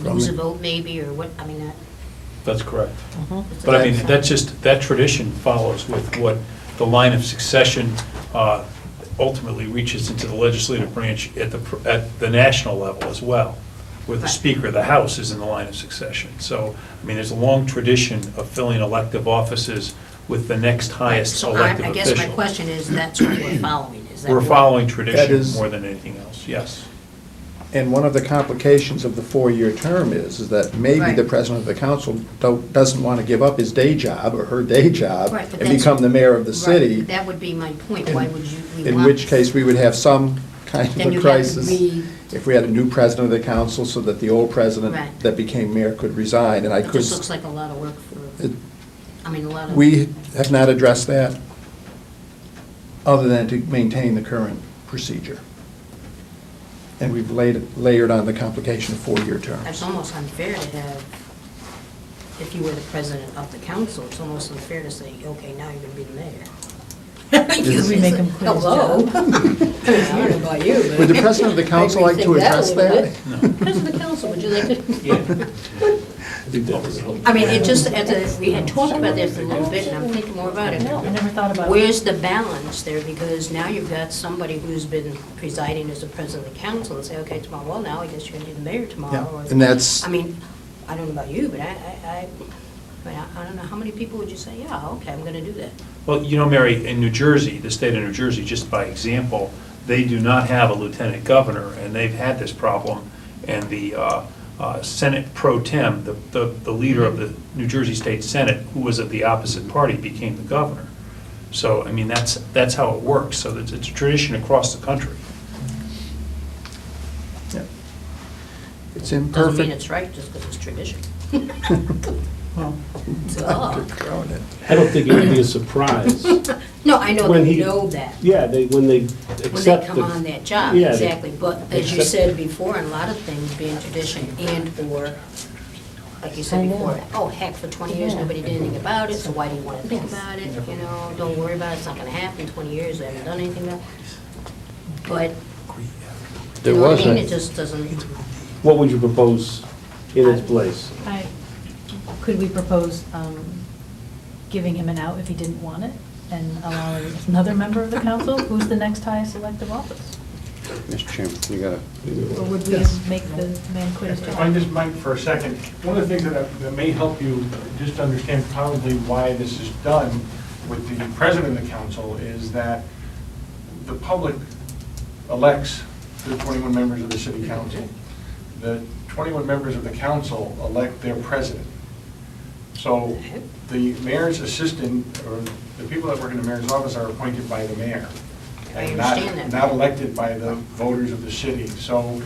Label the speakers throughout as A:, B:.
A: lose a vote maybe, or what, I mean,
B: That's correct.
A: that.
B: But I mean, that's just, that tradition follows with what the line of succession uh, ultimately reaches into the legislative branch at the, pr- at the national level as well, where the
A: Right.
B: Speaker of the House is in the line of succession. So, I mean, there's a long tradition of filling elective offices with the next highest
A: So I-
B: elective
A: I guess my
B: official.
A: question is, that's what we're following, is that?
B: We're
A: what-
B: following
C: That
B: tradition
C: is-
B: more than anything else, yes.
C: And one of the complications of the four-year term is, is that maybe
A: Right.
C: the president of the council don't, doesn't want to give up his day job or her day job
A: Right, but
C: and
A: that's-
C: become the mayor of the
A: Right,
C: city,
A: That would be my point, why would you? we
C: in
A: want-
C: which case we would have some kind
A: Then
C: of
A: you
C: a
A: have
C: crisis.
A: re-
C: If we had a new president of the council so that the old
A: Right.
C: president that became mayor could resign, and I
A: It
C: could.
A: just looks like a lot of work for,
C: it-
A: I mean, a lot of.
C: We have not addressed that, other than to maintain the current procedure. And we've laid, layered on the complication of four-year
A: It's
C: terms.
A: almost unfair to have, if you were the president of the council, it's almost unfair to say, okay, now you're gonna be the mayor.
C: Is-
D: We make him quit his
A: Hello?
D: job.
A: I don't know about you, but.
C: Would the president of the council like to
A: I'd rethink that a
C: address
A: little
C: that?
A: bit. President of the council, would you like to?
E: Well,
A: I mean, it just, as a, we had talked about this a little bit, and I'm thinking more about it.
D: No, I never thought about it.
A: Where's the balance there? Because now you've got somebody who's been presiding as the president of the council and say, okay, tomorrow, well, now I guess you're gonna be the mayor tomorrow.
C: Yeah,
A: or-
C: and that's-
A: I mean, I don't know about you, but I, I, I, I mean, I- I don't know, how many people would you say, yeah, okay, I'm gonna do that?
B: Well, you know, Mary, in New Jersey, the state of New Jersey, just by example, they do not have a lieutenant governor, and they've had this problem. And the uh, uh, Senate pro tem, the- the the leader of the New Jersey State Senate, who was of the opposite party, became the governor. So, I mean, that's, that's how it works, so it's it's a tradition across the country.
C: Yeah. It's
A: Doesn't mean
C: imperfect.
A: it's right just because it's tradition.
C: Dr.
A: So,
C: Cronin.
E: I don't think it would be a surprise.
A: No, I know,
E: When
A: they
E: he-
A: know that.
E: Yeah, they, when they
A: when they
E: accept
A: come on
E: the,
A: that job,
E: Yeah, they-
A: exactly. But as you
E: accept-
A: said before, a lot of things being tradition and/or, like you said
D: I know.
A: before, oh, heck, for 20 years,
D: Yeah.
A: nobody did anything about it, so why do you want to think
D: Yes.
A: about it? You know, don't worry about it, it's not going to happen, 20 years, they haven't done anything about it. But, you
C: There
A: know what I
C: was
A: mean,
C: a-
A: it just doesn't,
E: what would you propose in its place?
D: I- Could we propose um, giving him an out if he didn't want it and allow another member of the council? Who's the next highest elective office?
F: Mr. Chairman, you gotta,
D: Or would we
G: Yes.
D: make the man quit his
G: If I
D: job?
G: just might for a second, one of the things that, I- that may help you just understand probably why this is done with the president of the council is that the public elects the 21 members of the city council. The 21 members of the council elect their president. So the mayor's assistant, or the people that work in the mayor's office are appointed by the mayor.
A: I
G: and not-
A: understand that.
G: Not elected by the voters of the city. So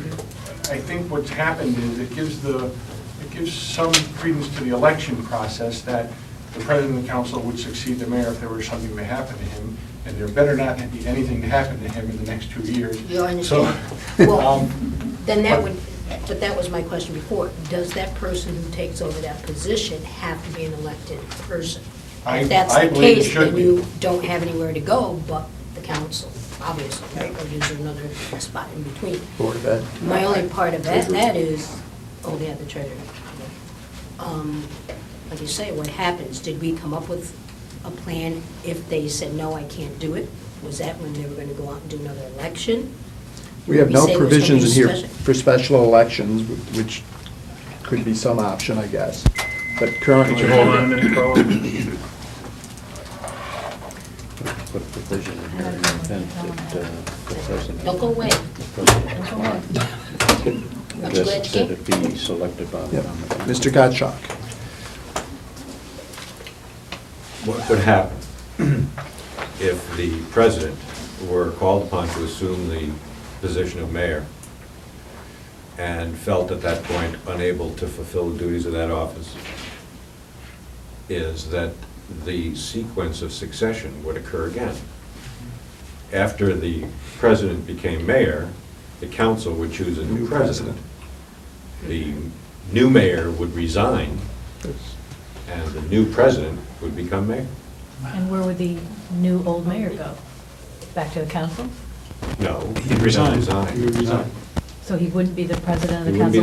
G: I think what's happened is it gives the, it gives some credence to the election process that the president of the council would succeed the mayor if there were something to happen to him, and there better not be anything to happen to him in the next two years.
A: you
G: So,
A: understand? Well,
G: um,
A: then that would, but that was my question before. Does that person who takes over that position have to be an elected person?
G: I-
A: If that's
G: I
A: the
G: believe it
A: case,
G: should
A: then
G: be.
A: you don't have anywhere to go but the council, obviously, right? Or is there another spot in between?
C: Board of Ed.
A: My only part of that, that is, oh, yeah, the treasurer. Um, Like you say, what happens? Did we come up with a plan if they said, no, I can't do it? Was that when they were going to go out and do another election?
C: We have no
A: Say it was gonna be
C: provisions in here
A: special.
C: for special elections, wh- which could be some option, I guess. But currently.
B: minute,
F: put a provision in here, and then that uh, the president.
A: Don't go away.
F: the president
D: Don't go away.
F: can-
A: Aren't you glad you
F: That
A: came?
F: it be selected by the
C: Yeah.
F: common council.
C: Mr. Gottschalk.
H: what would happen if the president were called upon to assume the position of mayor and felt at that point unable to fulfill the duties of that office, is that the sequence of succession would occur again. After the president became mayor, the council would choose a new president. The new mayor would resign, and the new president would become mayor.
D: And where would the new old mayor go? Back to the council?
H: No.
B: He'd resign.
H: Resign.
D: So he wouldn't be the president
H: He
D: of the
H: wouldn't be
D: council